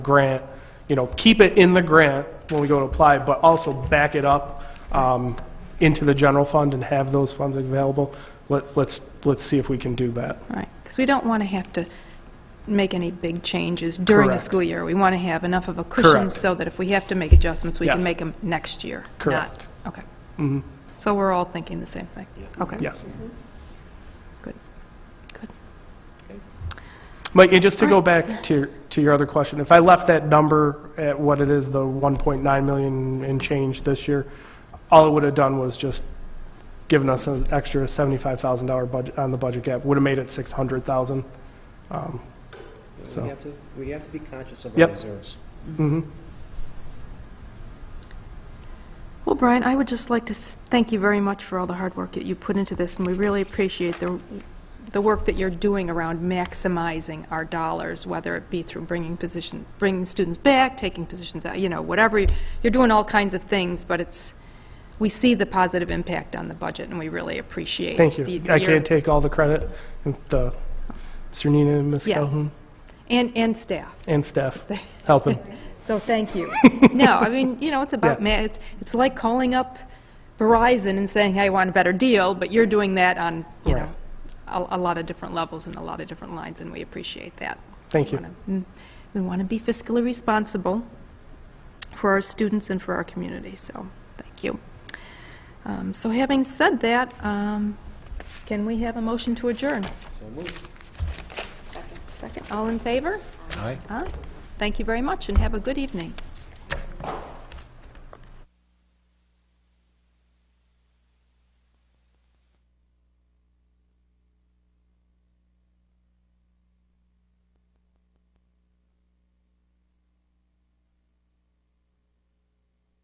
grant, you know, keep it in the grant when we go to apply, but also back it up um, into the general fund and have those funds available. Let- Let's, let's see if we can do that. Right, because we don't want to have to make any big changes during a Correct. school year. We want to have enough of a cushion Correct. so that if we have to make adjustments, we can Yes. make them next year. not- Correct. Okay, Mhm. so we're all thinking the same thing? Okay. Yes. Good. Good. Mike, and just to go back to, your- to your other question, if I left that number at what it is, the 1.9 million and change this year, all it would have done was just given us an extra $75,000 budget, on the budget gap, would have made it 600,000. Um, So- We have to, we have to be conscious of our Yep. reserves. mhm. Well, Brian, I would just like to s- thank you very much for all the hard work that you put into this, and we really appreciate the, the work that you're doing around maximizing our dollars, whether it be through bringing positions, bringing students back, taking positions out, you know, whatever. you- You're doing all kinds of things, but it's, we see the positive impact on the budget, and we really appreciate. Thank the- you. the I year- can't take all the credit, the, Mr. Nina and Ms. Yes, Calhoun and, and staff. and staff helping. So thank you. No, I mean, you know, it's about, ma- it's, it's like calling up Verizon and saying, hey, I want a better deal, but you're doing that on, you know, a, a lot of different levels and a lot of different lines, and we appreciate that. Thank We you. wanna- mm, We want to be fiscally responsible for our students and for our community, so, thank you. Um, So having said that, um, can we have a motion to adjourn? So move. Second, all in favor? Aye. Aye. Thank you very much, and have a good evening.